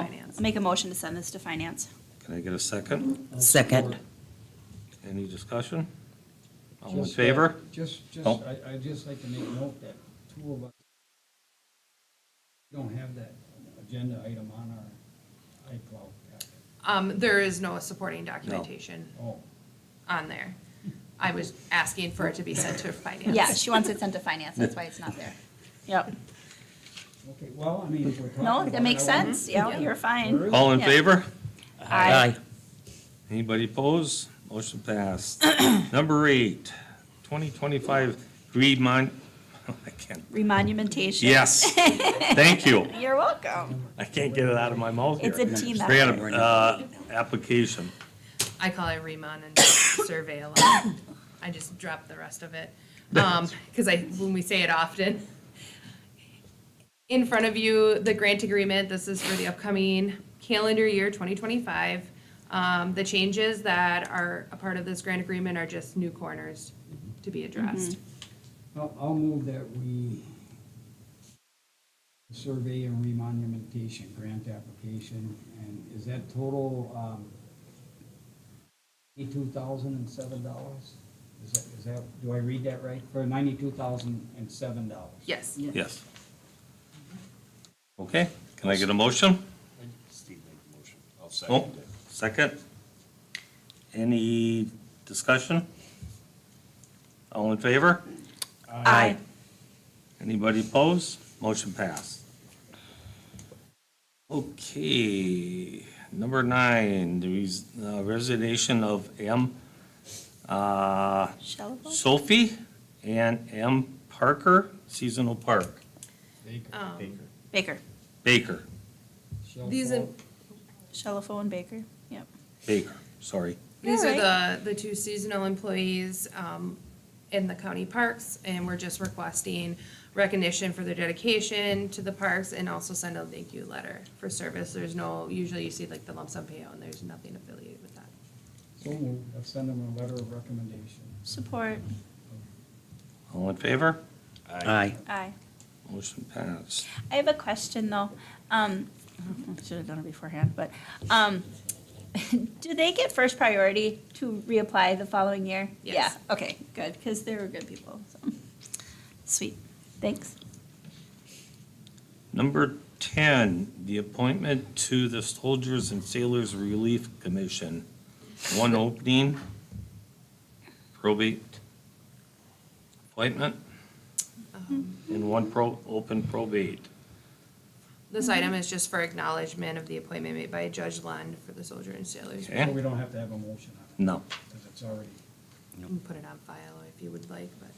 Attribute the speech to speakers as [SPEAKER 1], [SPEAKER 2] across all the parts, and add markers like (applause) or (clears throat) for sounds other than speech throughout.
[SPEAKER 1] Finance. Make a motion to send this to finance.
[SPEAKER 2] Can I get a second?
[SPEAKER 3] Second.
[SPEAKER 2] Any discussion? All in
[SPEAKER 4] Just, uh,
[SPEAKER 2] favor?
[SPEAKER 4] Just, just,
[SPEAKER 2] Oh.
[SPEAKER 4] I, I'd just like to make note that two of us don't have that agenda item on our iCloud packet.
[SPEAKER 5] Um, there is no supporting documentation
[SPEAKER 4] Oh,
[SPEAKER 5] on there. I was asking for it to be sent to finance.
[SPEAKER 1] Yeah, she wants it sent to finance, that's why it's not there. Yep.
[SPEAKER 4] okay, well, I mean, if we're talking
[SPEAKER 1] No,
[SPEAKER 4] about
[SPEAKER 1] that
[SPEAKER 4] it,
[SPEAKER 1] makes
[SPEAKER 4] I wanna-
[SPEAKER 1] sense, yeah, you're
[SPEAKER 4] Where
[SPEAKER 1] fine.
[SPEAKER 4] is-
[SPEAKER 2] All in
[SPEAKER 1] Yeah.
[SPEAKER 2] favor?
[SPEAKER 1] Aye.
[SPEAKER 2] Anybody oppose? Motion
[SPEAKER 1] (clears throat)
[SPEAKER 2] passed. Number eight, 2025 remon, (laughs) I can't,
[SPEAKER 1] Remonumentation. (laughs)
[SPEAKER 2] yes, thank you.
[SPEAKER 1] You're welcome.
[SPEAKER 2] I can't get it out of my mouth here.
[SPEAKER 1] It's a team effort.
[SPEAKER 2] Straight up, uh, application.
[SPEAKER 5] I call it remon and survey a lot. I just drop the rest of it. Um, cause I, when we say it often. In front of you, the grant agreement, this is for the upcoming calendar year twenty twenty-five. Um, the changes that are a part of this grant agreement are just new corners to be addressed.
[SPEAKER 4] I'll, I'll move that we survey and remonumentation grant application, and is that total, um, eighty-two thousand and seven dollars? Is that, is that, do I read that right? For ninety-two thousand and seven dollars?
[SPEAKER 5] Yes.
[SPEAKER 2] Yes. Okay, can I get a motion?
[SPEAKER 6] Steve made the motion. I'll
[SPEAKER 2] Oh,
[SPEAKER 6] second
[SPEAKER 2] second.
[SPEAKER 6] it.
[SPEAKER 2] Any discussion? All in favor?
[SPEAKER 1] Aye.
[SPEAKER 2] Anybody opposed? Motion passed. Okay, number nine, the res- uh, resignation of M. uh,
[SPEAKER 1] Shellable?
[SPEAKER 2] Sophie and M. Parker, seasonal park,
[SPEAKER 1] Baker.
[SPEAKER 2] Baker,
[SPEAKER 4] Shall
[SPEAKER 5] These
[SPEAKER 4] fall?
[SPEAKER 5] in-
[SPEAKER 1] Shellphone Baker, yep.
[SPEAKER 2] Baker, sorry.
[SPEAKER 5] These
[SPEAKER 1] You're
[SPEAKER 5] are the, the two seasonal employees um, in the county parks, and we're just requesting recognition for their dedication to the parks and also send a thank you letter for service. There's no, usually you see like the lump sum payout, and there's nothing affiliated with that.
[SPEAKER 4] So moved, I'll send them a letter of recommendation.
[SPEAKER 1] Support.
[SPEAKER 2] All in favor?
[SPEAKER 3] Aye.
[SPEAKER 1] Aye.
[SPEAKER 2] Motion passed.
[SPEAKER 1] I have a question, though. Um, (laughs) should have done it beforehand, but, um, (laughs) do they get first priority to reapply the following year?
[SPEAKER 5] Yes.
[SPEAKER 1] Yeah, okay, good, because they were good people, so. Sweet, thanks.
[SPEAKER 2] Number 10, the appointment to the Soldiers and Sailors Relief Commission. One opening, probate appointment,
[SPEAKER 5] Um,
[SPEAKER 2] and one pro, open probate.
[SPEAKER 5] This item is just for acknowledgement of the appointment made by Judge Lund for the soldier and sailors.
[SPEAKER 2] Okay.
[SPEAKER 4] So we don't have to have a motion on it,
[SPEAKER 2] No.
[SPEAKER 4] because it's already,
[SPEAKER 5] You can put it on file if you would like, but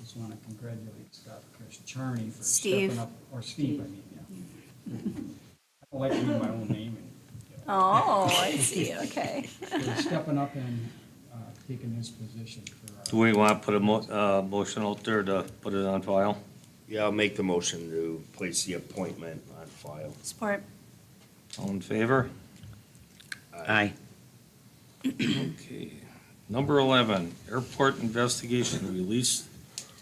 [SPEAKER 4] just want to congratulate Scott Chris Charney for
[SPEAKER 1] Steve.
[SPEAKER 4] stepping up, or Steve, I mean, yeah. I don't like to read my own name and, you know.
[SPEAKER 1] Oh, I (laughs) see, okay.
[SPEAKER 4] for stepping up and uh, taking his position
[SPEAKER 2] Do
[SPEAKER 4] for uh, our,
[SPEAKER 2] we want to put a mo, uh, motion out there to put it on file?
[SPEAKER 6] Yeah, I'll make the motion to place the appointment on file.
[SPEAKER 1] Support.
[SPEAKER 2] All in favor?
[SPEAKER 3] Aye.
[SPEAKER 2] Okay. Number 11, airport investigation, release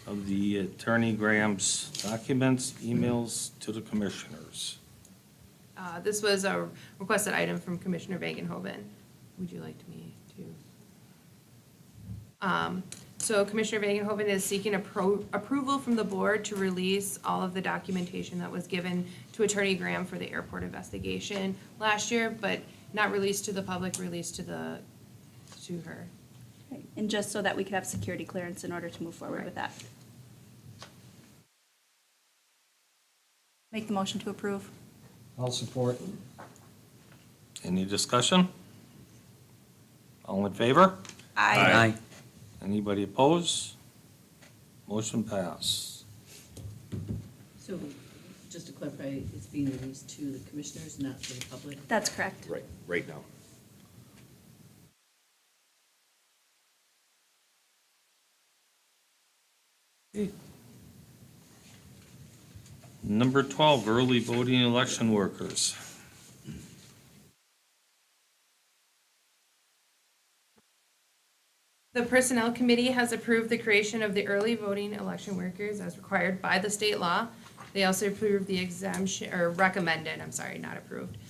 [SPEAKER 2] of the attorney Graham's documents, emails to the commissioners.
[SPEAKER 5] uh, this was a requested item from Commissioner Vangenhoven. Would you like me to? Um, So Commissioner Vangenhoven is seeking appro- approval from the board to release all of the documentation that was given to Attorney Graham for the airport investigation last year, but not released to the public, released to the, to her.
[SPEAKER 1] And just so that we could have security clearance in order to move forward with that. Make the motion to approve.
[SPEAKER 4] I'll support.
[SPEAKER 2] Any discussion? All in favor?
[SPEAKER 3] Aye.
[SPEAKER 2] Anybody opposed? Motion pass.
[SPEAKER 7] So, just to clarify, it's being released to the commissioners, not to the public?
[SPEAKER 1] That's correct.
[SPEAKER 6] Right, right now.
[SPEAKER 2] Number 12, early voting election workers.
[SPEAKER 5] The Personnel Committee has approved the creation of the early voting election workers as required by the state law. They also approved the exemption, or recommended, I'm sorry, not approved,